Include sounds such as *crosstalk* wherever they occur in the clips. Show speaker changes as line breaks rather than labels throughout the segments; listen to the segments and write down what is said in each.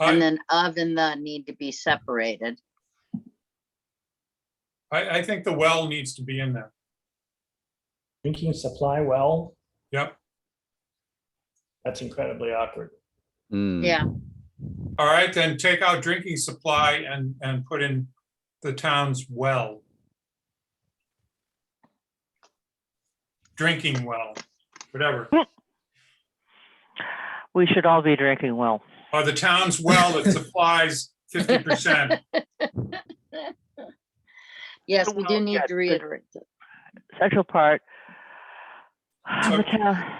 And
I,
then of and the need to be separated.
I, I think the well needs to be in there.
Drinking supply well,
Yep.
that's incredibly awkward.
Mm.
Yeah,
All right, then take out drinking supply and, and put in the town's well. Drinking well, whatever,
We should all be drinking well.
or the town's well that supplies
*laughs*
fifty percent. Oh,
yes, we do
Well,
need
yes,
to
but-
reiterate. that.
Central part.
So-
The town,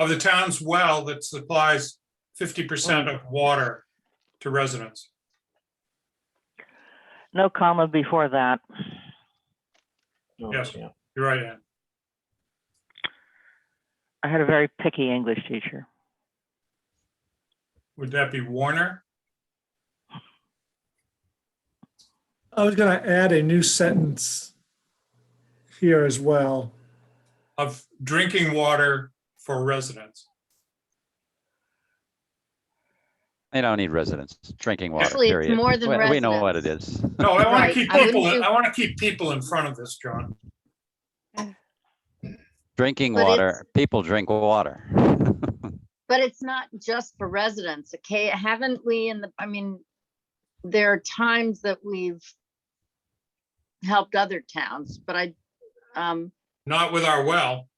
of the town's well that supplies fifty percent of water to residents.
no comma before that.
No,
Yes.
yeah.
You're right, Ann.
I had a very picky English teacher.
Would that be Warner?
I was going to add a new sentence here as well.
Of drinking water for residents.
They don't need residents, drinking water,
Actually, it's
period.
more than
We- We know what it is.
No, I want to
Right,
keep
I wouldn't
people,
do-
I want to keep people in front of this, John.
Drinking
But
water, people drink water. *laughs*
But it's not just for residents, okay? Haven't we in the, I mean, there are times that we've helped other towns, but I, um,
Not with our well.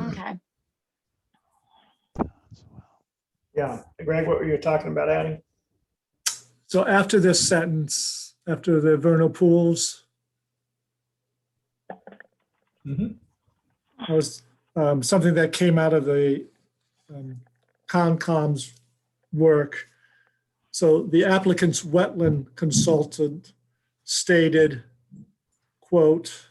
okay,
Yeah, Greg, what were you talking about adding?
So after this sentence, after the vernal pools,
Mhm.
that was um, something that came out of the um, Concom's work. So the applicant's wetland consultant stated, quote,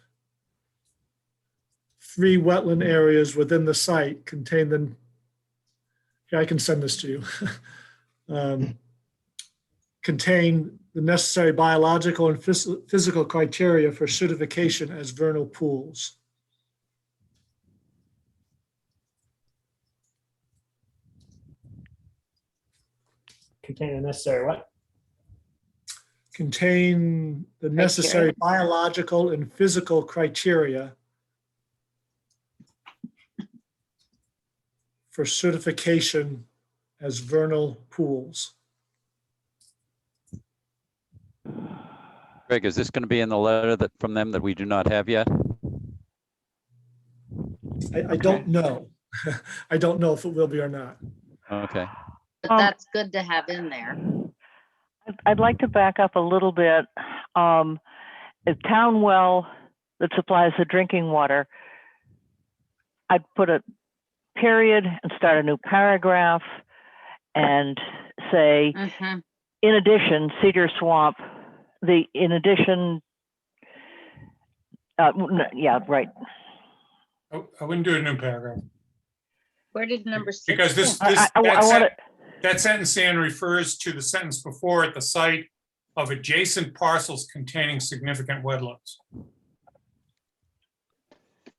"Three wetland areas within the site contain the," yeah, I can send this to you. *laughs* Um, contain the necessary biological and phys- physical criteria for certification as vernal pools.
Contain the necessary what?
Contain the necessary biological and physical criteria for certification as vernal pools.
Greg, is this going to be in the letter that, from them that we do not have yet?
I, I don't know. *laughs* I don't know if it will be or not.
Okay.
but
Um,
that's good to have in there.
I'd- I'd like to back up a little bit. Um, a town well that supplies the drinking water. I'd put a period and start a new paragraph and say,
Mhm.
in addition, Cedar Swamp, the, in addition, uh, w- n- yeah, right.
I Oh, I wouldn't do a new paragraph.
Where did number six?
Because
go?
this, this,
I, I,
that
want
sentence,
to,
that sentence, Ann, refers to the sentence before at the site of adjacent parcels containing significant wetlands.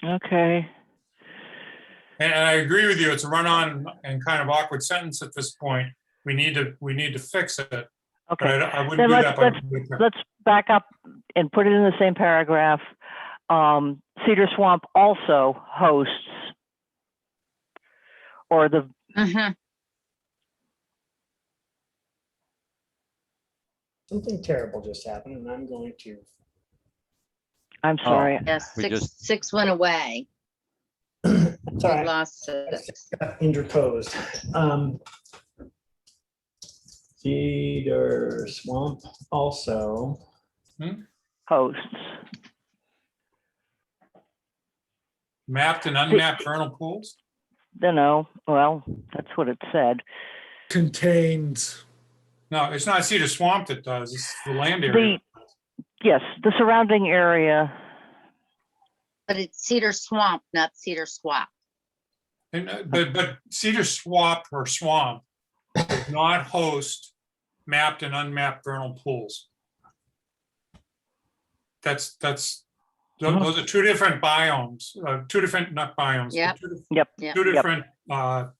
okay,
And and I agree with you, it's a run-on and kind of awkward sentence at this point. We need to, we need to fix it. But
okay.
I don't- I wouldn't
Then
do
let's-
that. by- with that.
Let's back up and put it in the same paragraph. Um, Cedar Swamp also hosts or the,
Mhm.
Something terrible just happened and I'm going to,
Oh.
I'm sorry,
Yes,
We
six,
just-
six went away.
it's
We
all right,
lost six.
interposed. Um, Cedar Swamp also.
hosts.
Mapped and unmapped vernal pools?
You know, well, that's what it said.
Contains,
No, it's not Cedar Swamp that does, it's the land area.
The, yes, the surrounding area,
But it's Cedar Swamp, not Cedar Swamp.
And, uh, but, but Cedar Swamp or Swamp does not host mapped and unmapped vernal pools. That's, that's, tho-
Hmm.
Mhm.
those are two different biomes, uh, two different, not biomes. but
Yep.
two dif-
Yep.
Yep.
Two
Yep.
different, uh,